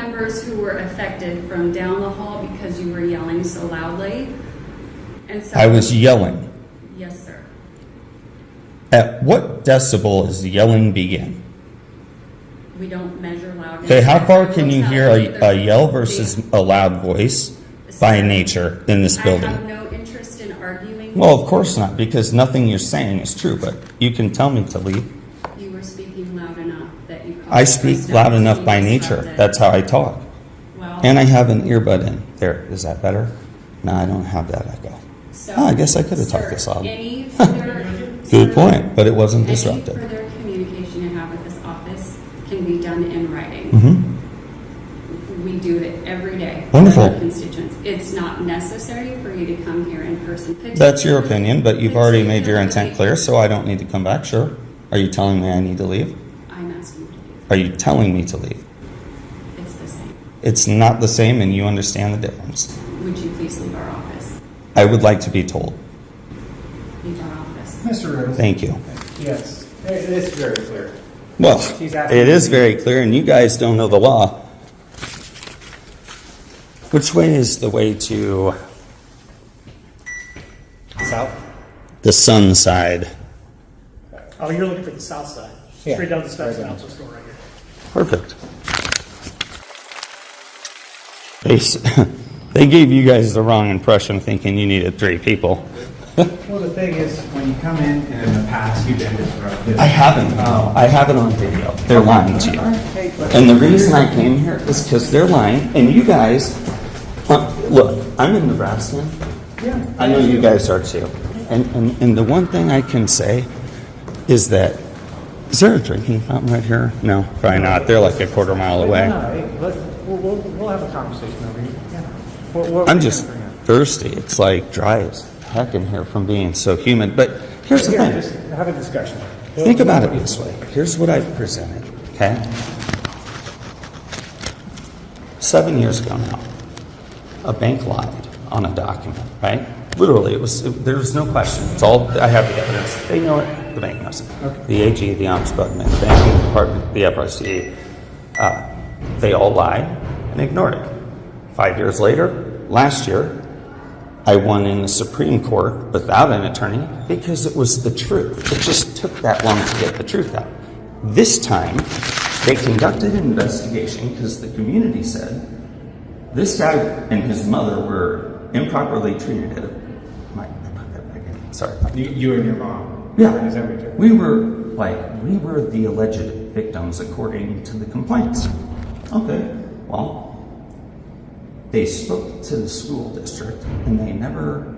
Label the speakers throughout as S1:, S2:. S1: neighbors who were affected from down the hall because you were yelling so loudly. And so.
S2: I was yelling.
S1: Yes, sir.
S2: At what decibel is the yelling begin?
S1: We don't measure loudness.
S2: Okay, how far can you hear a, a yell
S1: Please.
S2: versus a loud voice by nature in this
S1: I
S2: building?
S1: have no interest in arguing.
S2: Well, of course not, because nothing you're saying is true, but you can tell me to leave.
S1: You were speaking loud enough that you.
S2: I speak loud enough by nature. That's how I talk. And I have an earbud in. There, is that better? No, I don't have that echo. Ah, I guess I could have talked this loud.
S1: Any further.
S2: Good point, but it wasn't
S1: Any
S2: disruptive.
S1: further communication you have with this office can be done in writing.
S2: hmm
S1: We do it every day. with
S2: Wonderful.
S1: our Constituents. It's not necessary for you to come here in person.
S2: That's your opinion, but you've already made your intent clear, so I don't need to come back, sure. Are you telling me I need to leave?
S1: I'm asking you to do
S2: Are you telling me to leave?
S1: it. It's the same.
S2: It's not the same, and you understand the difference.
S1: Would you please leave our office?
S2: I would like to be told.
S1: Leave our office.
S3: Mr. Riddle?
S2: Thank you.
S3: Yes, it is very clear.
S2: Well,
S3: She's asking-
S2: it is very clear, and you guys don't know the law. Which way is the way to
S3: South?
S2: the sun side?
S4: Oh, you're looking for the south side,
S3: Yeah.
S4: straight down the steps
S3: Right
S4: and
S3: down.
S4: out the store right here.
S2: Perfect. They, s- they gave you guys the wrong impression thinking you needed three people.
S3: Well, the thing is, when you come in, and in the past, you've been disruptive.
S2: I haven't. I haven't on video. They're lying to you.
S3: Hey, but-
S2: And the reason I came here is because they're lying, and you guys, uh, look, I'm in Nebraska.
S3: Yeah.
S2: I know you guys are too. And, and, and the one thing I can say is that, is there a drinking fountain right here? No, probably not. They're like a quarter mile away.
S3: No, hey, let's, we'll, we'll, we'll have a conversation over here. Yeah. What- what
S2: I'm
S3: were you
S2: just
S3: gonna bring up?
S2: thirsty. It's like dry as heck in here from being so humid. But here's the
S3: Yeah,
S2: thing.
S3: just have a discussion.
S2: Think about it this way. Here's what I've presented, okay? Seven years ago now, a bank lied on a document, right? Literally, it was, it, there was no question. It's all, I have the evidence. They know it, the bank knows it. The AG, the Ombudsman, the banking department, the FRC, uh, they all lied and ignored it. Five years later, last year, I won in the Supreme Court without an attorney because it was the truth. It just took that long to get the truth out. This time, they conducted an investigation because the community said this guy and his mother were improperly treated. At my, I put that back in. Sorry.
S3: You, you and your mom. Is that what
S2: Yeah.
S3: you're-
S2: We were like, we were the alleged victims according to the complaints. Okay, well, they spoke to the school district and they never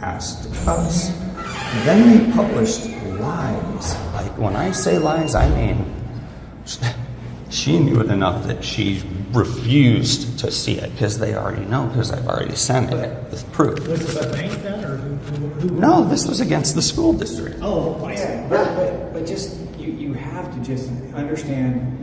S2: asked us. Then they published lies. Like when I say lies, I mean she knew it enough that she refused to see it because they already know because I've already sent it with proof.
S4: Was this a bank then, or who, who- who?
S2: No, this was against the school district.
S4: Oh, I see.
S3: Yeah, but, but, but just, you, you have to just understand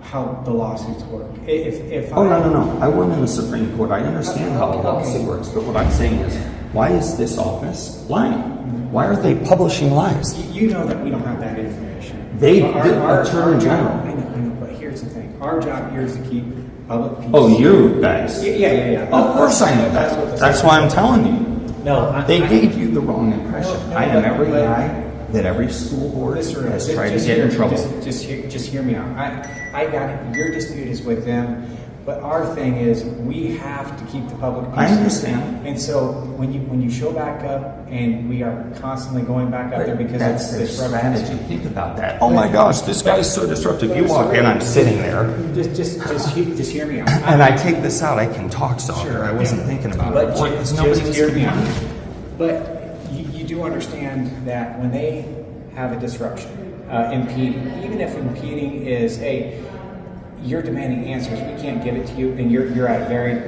S3: how the lawsuits work. I- If, if.
S2: Oh,
S3: I-
S2: no, no, no. I won in the Supreme Court. I understand how the
S3: Okay.
S2: policy works, but what I'm saying is, why is this office lying? Why are they publishing lies?
S3: You you know that we don't have that information.
S2: They-
S3: Our-
S2: the
S3: our-
S2: Attorney
S3: our job-
S2: General.
S3: I know, I know, but here's the thing, our job here is to keep public peace.
S2: Oh, you guys.
S3: Yeah, yeah, yeah, yeah.
S2: Of course I know
S3: That's what
S2: that.
S3: the-
S2: That's why I'm telling you.
S3: No, I.
S2: They
S3: I-
S2: gave you the wrong impression.
S3: No, no,
S2: I am
S3: but-
S2: every
S3: but-
S2: guy that every school board
S3: Listen,
S2: has
S3: just-
S2: tried to
S3: just
S2: get
S3: hear
S2: in
S3: me,
S2: trouble.
S3: Just, just hear, just hear me out. I, I got it. Your dispute is with them, but our thing is we have to keep the public.
S2: I
S3: peace.
S2: understand.
S3: And so when you when you show back up, and we are constantly going back up there because
S2: That's
S3: it's
S2: their
S3: this reference.
S2: strategy. Think about that. Oh my gosh, this guy's so disruptive. You walk in, I'm sitting there,
S3: Just, just, just, he- just hear me out.
S2: and I take this out. I can talk softer.
S3: Sure.
S2: I wasn't thinking about it.
S3: But
S2: before,
S3: ju-
S2: 'cause
S3: just,
S2: nobody was
S3: hear me
S2: thinking about
S3: out.
S2: it.
S3: But you, you do understand that when they have a disruption, uh, impede, even if impeding is, hey, you're demanding answers, we can't give it to you, and you're, you're at a very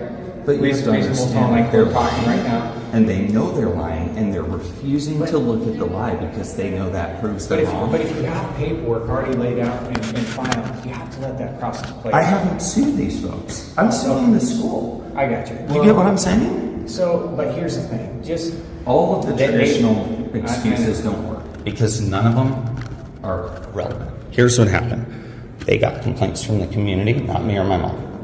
S2: But you have to
S3: reasonable tone,
S2: understand,
S3: like
S2: like
S3: we're
S2: they're
S3: talking right now.
S2: and they know they're lying, and they're refusing to look at the lie because they know that proves
S3: But
S2: they're
S3: if,
S2: wrong.
S3: but if you have paperwork already laid out and, and filed, you have to let that process play.
S2: I
S3: out.
S2: haven't sued these folks. I'm suing the school.
S3: I got you.
S2: You get what I'm saying?
S3: So, but here's the thing, just
S2: All of the
S3: They- they-
S2: traditional
S3: I- I-
S2: excuses don't work because none of them are relevant. Here's what happened. They got complaints from the community, not me or my mom.